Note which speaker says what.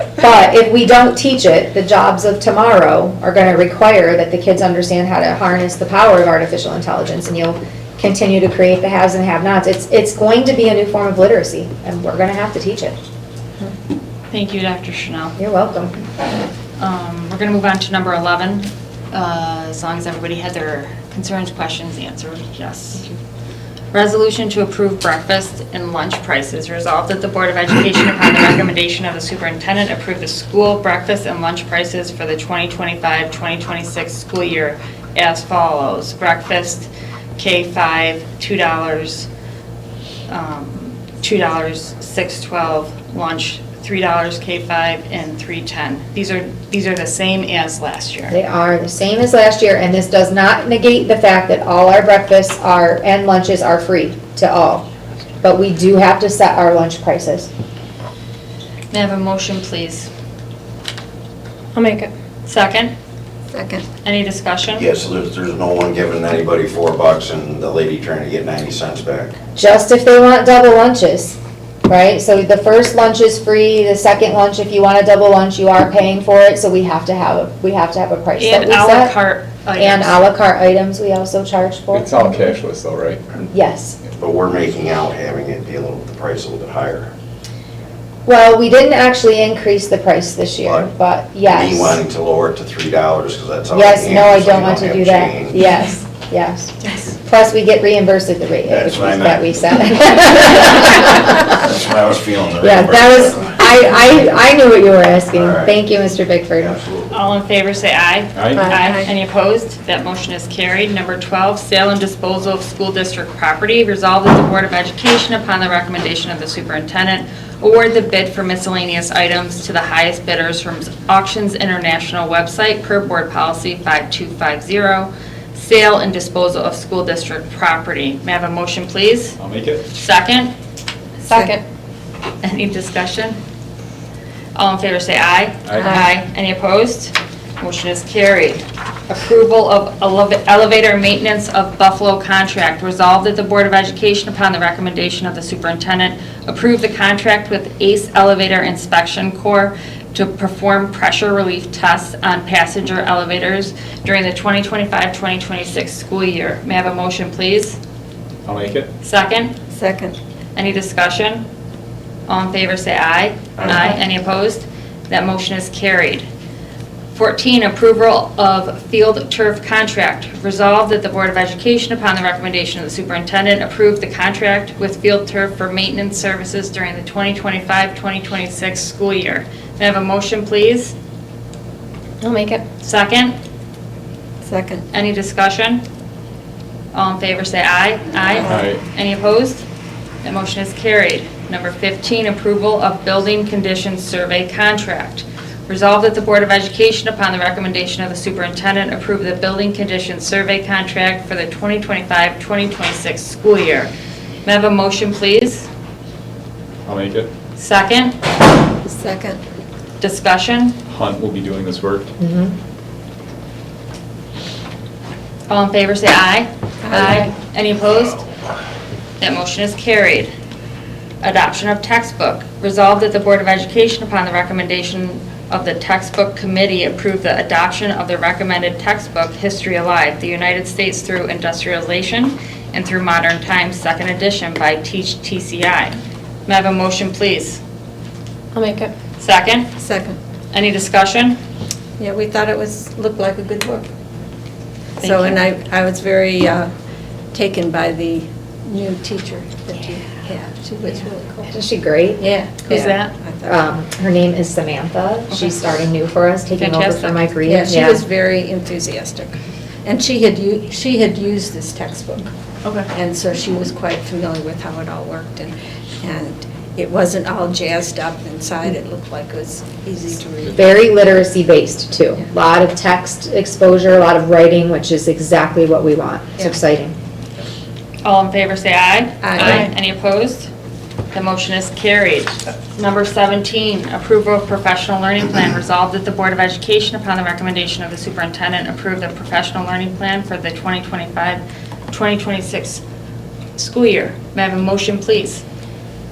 Speaker 1: if we don't teach it, the jobs of tomorrow are gonna require that the kids understand how to harness the power of artificial intelligence, and you'll continue to create the haves and have-nots. It's, it's going to be a new form of literacy, and we're gonna have to teach it.
Speaker 2: Thank you, Dr. Chanel.
Speaker 1: You're welcome.
Speaker 2: Um, We're going to move on to number 11, uh, as long as everybody had their concerns, questions answered, yes. Resolution to approve breakfast and lunch prices. Resolved that the Board of Education, upon the recommendation of the superintendent, approve the school breakfast and lunch prices for the 2025-2026 school year as follows. Breakfast, K-5, $2, um, $2, six twelve, lunch, $3 K-5, and three ten. These are, these are the same as last year.
Speaker 1: They are the same as last year, and this does not negate the fact that all our breakfasts are, and lunches are free to all. But we do have to set our lunch prices.
Speaker 2: May I have a motion, please?
Speaker 3: I'll make it.
Speaker 2: Second,
Speaker 3: Second.
Speaker 2: any discussion?
Speaker 4: Yes, there's, there's no one giving anybody four bucks and the lady trying to get ninety cents back.
Speaker 1: just if they want double lunches, right? So the first lunch is free, the second lunch, if you want a double lunch, you are paying for it, so we have to have, we have to have a price that
Speaker 2: And
Speaker 1: we
Speaker 2: à la
Speaker 1: set.
Speaker 2: carte items.
Speaker 1: And à la carte items we also charge for.
Speaker 5: It's all cashless though, right?
Speaker 1: Yes.
Speaker 4: But we're making out having it be a little, the price a little bit higher.
Speaker 1: Well, we didn't actually increase the price this year,
Speaker 4: Right.
Speaker 1: but
Speaker 4: Me
Speaker 1: yes.
Speaker 4: wanting to lower it to three dollars because that's all.
Speaker 1: Yes,
Speaker 4: can,
Speaker 1: no, I
Speaker 4: so
Speaker 1: don't want to
Speaker 4: have
Speaker 1: do that.
Speaker 4: change.
Speaker 1: Yes, yes.
Speaker 2: Yes.
Speaker 1: Plus, we get reimbursed at the rate at
Speaker 4: That's
Speaker 1: which we-
Speaker 4: what I meant.
Speaker 1: that we set.
Speaker 4: That's what I was feeling. the
Speaker 1: Yeah, that was,
Speaker 4: reimbursement.
Speaker 1: I, I, I knew what you were asking.
Speaker 4: All right.
Speaker 1: Thank you, Mr. Bickford.
Speaker 4: Absolutely.
Speaker 2: All in favor, say aye.
Speaker 5: Aye.
Speaker 3: Aye.
Speaker 2: Any opposed? That motion is carried. Number 12, sale and disposal of school district property. Resolved that the Board of Education, upon the recommendation of the superintendent, award the bid for miscellaneous items to the highest bidders from Auctions International website per Board Policy 5250, sale and disposal of school district property. May I have a motion, please?
Speaker 5: I'll make it.
Speaker 2: Second?
Speaker 3: Second.
Speaker 2: Any discussion? All in favor, say aye.
Speaker 5: Aye.
Speaker 2: Any opposed? Motion is carried. Approval of eleva- elevator maintenance of Buffalo contract. Resolved that the Board of Education, upon the recommendation of the superintendent, approve the contract with ACE Elevator Inspection Corps to perform pressure relief tests on passenger elevators during the 2025-2026 school year. May I have a motion, please?
Speaker 5: I'll make it.
Speaker 2: Second?
Speaker 3: Second.
Speaker 2: Any discussion? All in favor, say aye. Aye. Any opposed? That motion is carried. 14, approval of field turf contract. Resolved that the Board of Education, upon the recommendation of the superintendent, approve the contract with field turf for maintenance services during the 2025-2026 school year. May I have a motion, please?
Speaker 3: I'll make it.
Speaker 2: Second?
Speaker 3: Second.
Speaker 2: Any discussion? All in favor, say aye.
Speaker 5: Aye.
Speaker 2: Any opposed? That motion is carried. Number 15, approval of building conditions survey contract. Resolved that the Board of Education, upon the recommendation of the superintendent, approve the building conditions survey contract for the 2025-2026 school year. May I have a motion, please?
Speaker 5: I'll make it.
Speaker 2: Second,
Speaker 3: Second.
Speaker 2: discussion?
Speaker 5: Hunt will be doing this work.
Speaker 1: Mhm.
Speaker 2: All in favor, say aye.
Speaker 3: Aye.
Speaker 2: Any opposed? That motion is carried. Adoption of textbook. Resolved that the Board of Education, upon the recommendation of the textbook committee, approve the adoption of the recommended textbook, History Alive, The United States Through Industrialization and Through Modern Times, Second Edition by Teach TCI. May I have a motion, please?
Speaker 3: I'll make it.
Speaker 2: Second?
Speaker 3: Second.
Speaker 2: Any discussion?
Speaker 3: Yeah, we thought it was, looked like a good book.
Speaker 2: Thank
Speaker 3: So, and
Speaker 2: you.
Speaker 3: I, I was very uh, taken by the new teacher that you had. She was really cool.
Speaker 1: Isn't she great?
Speaker 3: Yeah.
Speaker 2: Who's
Speaker 3: yeah.
Speaker 2: that?
Speaker 3: I thought-
Speaker 1: Um, her name is Samantha.
Speaker 2: Okay.
Speaker 1: She's starting new for us, taking over
Speaker 2: Fantastic.
Speaker 1: from Mike Reed.
Speaker 3: Yeah, she was very enthusiastic. And she had, u- she had used this textbook.
Speaker 2: Okay.
Speaker 3: And so she was quite familiar with how it all worked, and, and it wasn't all jazzed up inside, it looked like it was easy to read.
Speaker 1: Very literacy based too.
Speaker 3: Yeah.
Speaker 1: A Lot of text exposure, a lot of writing, which is exactly what we want. It's
Speaker 3: Yeah.
Speaker 1: exciting.
Speaker 2: All in favor, say aye.
Speaker 3: Aye.
Speaker 2: Any opposed? The motion is carried. Number 17, approval of professional learning plan. Resolved that the Board of Education, upon the recommendation of the superintendent, approve the professional learning plan for the 2025-2026 school year. May I have a motion, please?